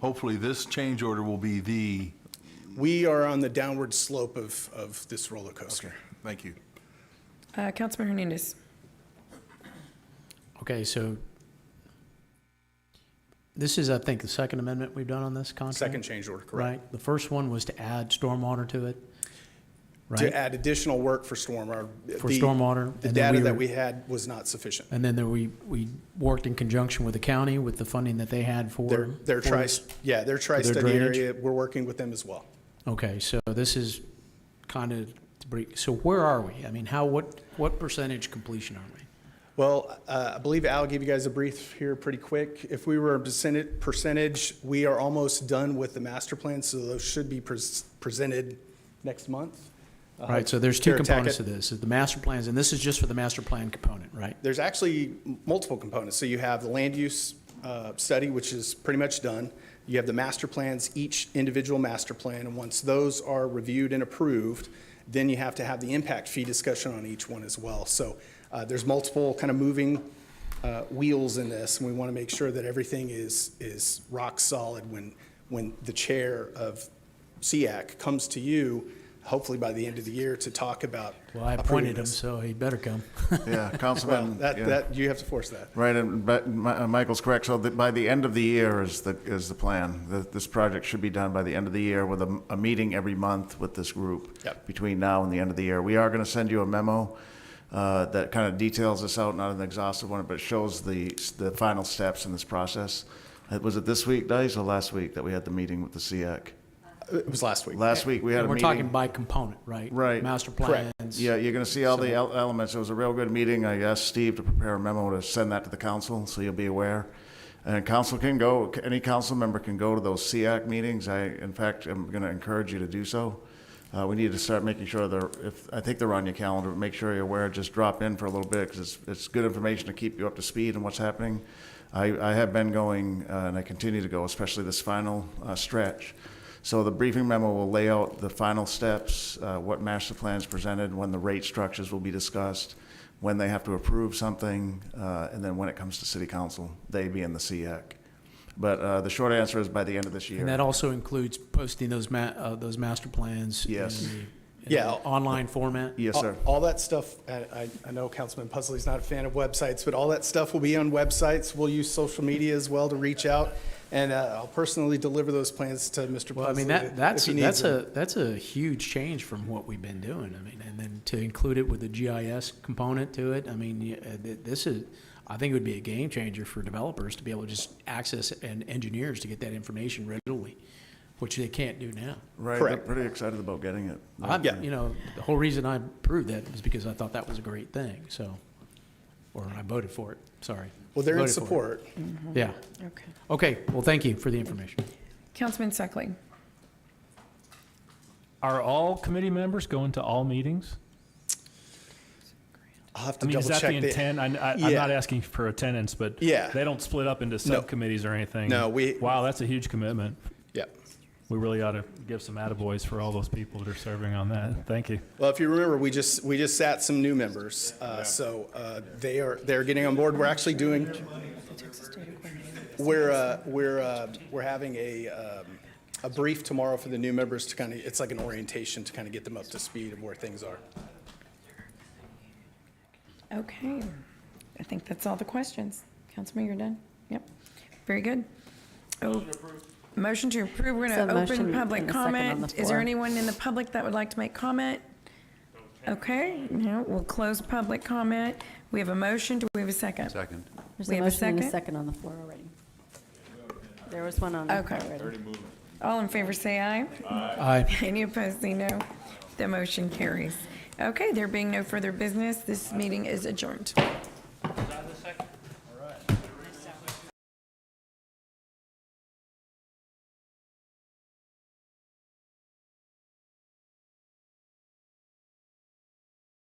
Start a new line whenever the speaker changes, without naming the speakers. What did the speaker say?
hopefully this change order will be the,
We are on the downward slope of, of this roller coaster.
thank you.
Uh, Councilman Hernandez.
Okay, so this is, I think, the second amendment we've done on this contract?
Second change order, correct?
Right? The first one was to add stormwater to it,
To
right?
add additional work for stormwater.
For
The-
stormwater,
The
and then
data
we
that
were-
we had was not sufficient.
And then there we, we worked in conjunction with the county with the funding that they had for.
Their, their
for
tri,
this.
yeah, their tri-study
drainage?
area, we're working with them as well.
Okay, so this is kind of, so where are we? I mean, how, what, what percentage completion are we?
Well, uh, I believe Al gave you guys a brief here pretty quick. If we were a percentage, percentage, we are almost done with the master plan, so those should be pres- presented next month. Uh,
Right, so there's two
Tara Tackett.
components to this, is the master plans, and this is just for the master plan component, right?
There's actually m- multiple components. So you have the land use uh, study, which is pretty much done. You have the master plans, each individual master plan, and once those are reviewed and approved, then you have to have the impact fee discussion on each one as well. So uh, there's multiple kind of moving uh, wheels in this, and we want to make sure that everything is, is rock solid when, when the chair of SEAC comes to you, hopefully by the end of the year, to talk about.
Well, I
approving
appointed him,
this.
so he better come.
Yeah,
Well,
Councilman.
that,
yeah.
that, you have to force that.
Right, and but Mi- uh, Michael's correct. So that by the end of the year is the, is the plan. That this project should be done by the end of the year with a, a meeting every month with this group.
Yep.
Between now and the end of the year. We are going to send you a memo uh, that kind of details this out, not an exhaustive one, but shows the, the final steps in this process. Uh, Was it this week, Dice, or last week that we had the meeting with the SEAC?
It was last week.
Last week, we had a
We're
meeting.
talking by component, right?
Right.
Master
Correct.
plans.
Yeah, you're going to see all the el- elements. It was a real good meeting. I asked Steve to prepare a memo to send that to the council, so you'll be aware. And council can go, any council member can go to those SEAC meetings. I, in fact, am going to encourage you to do so. Uh, we need to start making sure they're, if, I think they're on your calendar, but make sure you're aware, just drop in for a little bit, because it's, it's good information to keep you up to speed on what's happening. I, I have been going, uh, and I continue to go, especially this final, uh, stretch. So the briefing memo will lay out the final steps, uh, what master plans presented, when the rate structures will be discussed, when they have to approve something, uh, and then when it comes to city council, they being the SEAC. But uh, the short answer is by the end of this year.
And that also includes posting those ma, uh, those master plans. in
Yes.
the- in
Yeah.
the Online format?
Yes, sir.
All all that stuff, I, I- I know Councilman Pusley's not a fan of websites, but all that stuff will be on websites. We'll use social media as well to reach out, and uh, I'll personally deliver those plans to Mr. Pusley.
Well, I mean, that, that's,
if he needs
that's
them.
a, that's a huge change from what we've been doing. I mean, and then to include it with the GIS component to it, I mean, yeah, uh, th- this is, I think it would be a game changer for developers to be able to just access and engineers to get that information readily, which they can't do now.
Right, they're
Correct.
pretty excited about getting it.
I'm,
Yeah.
you know, the whole reason I approved that was because I thought that was a great thing, so, or I voted for it, sorry.
Well, they're in
Voted for it.
support.
Yeah.
Okay.
Okay, well, thank you for the information.
Councilman Suckling.
Are all committee members going to all meetings?
I'll have
I
to
mean,
double
is that the
check. the-
intent? I, I, I'm
Yeah.
not asking for attendance, but
Yeah.
they don't split up into subcommittees or anything.
No, we-
Wow, that's a huge commitment.
Yeah.
We really ought to give some attaboys for all those people that are serving on that. Thank you.
Well, if you remember, we just, we just sat some new members, uh, so uh, they are, they're getting on board. We're actually doing, We're, uh, we're, uh, we're having a, um, a brief tomorrow for the new members to kind of, it's like an orientation to kind of get them up to speed of where things are.
Okay. I think that's all the questions. Councilman, you're done? Yep. Very good. Oh, Motion to approve. We're
So
going to
motion
open public
and a second on
comment.
the
Is there
floor.
anyone in the public that would like to make comment? Okay, now we'll close public comment. We have a motion. Do we have a second?
Second.
There's
We
a
have a
motion and a
second?
second on the floor already. There was one on the floor
Okay.
already.
All in favor, say aye.
Aye.
Any opposed, say no. The motion carries. Okay, there being no further business, this meeting is adjourned.